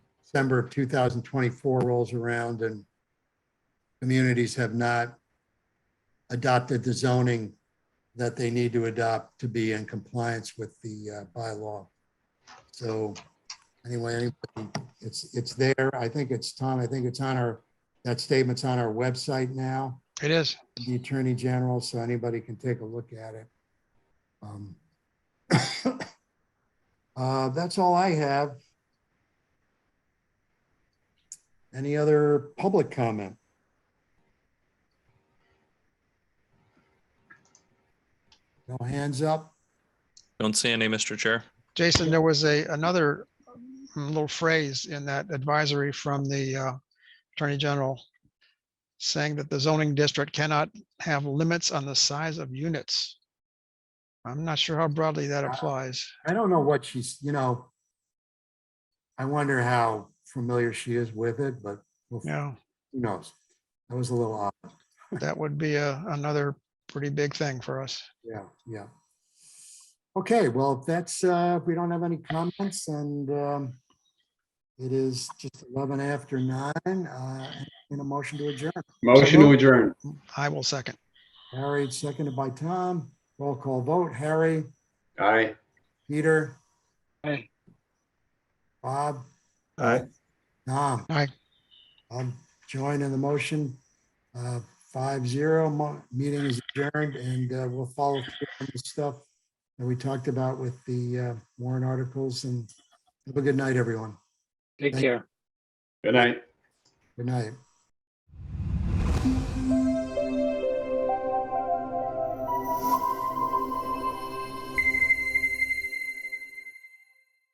December of 2024 rolls around and communities have not adopted the zoning that they need to adopt to be in compliance with the uh, bylaw. So anyway, it's, it's there. I think it's, Tom, I think it's on our, that statement's on our website now It is. the Attorney General, so anybody can take a look at it. Um, uh, That's all I have. Any other public comment? No hands up? Don't see any, Mr. Chair. Jason, there was a, another um, little phrase in that advisory from the uh, Attorney General saying that the zoning district cannot have limits on the size of units. I'm not sure how broadly that applies. I don't know what she's, you know, I wonder how familiar she is with it, but we'll- who Yeah, knows? That was a little odd. that would be a, another pretty big thing for us. Yeah, yeah. Okay, well, if that's, uh, if we don't have any comments and, um, it is just eleven after nine, uh, in a motion to adjourn. Motion to adjourn. I will second. Harry, seconded by Tom, roll call vote, Harry, Aye. Peter, Aye. Bob, Aye. Tom. Aye. I'm joining the motion, uh, five zero, mo- meeting is adjourned and, uh, we'll follow through on the stuff that we talked about with the, uh, warrant articles and have a good night, everyone. Take Thank- care. Good night. Good night.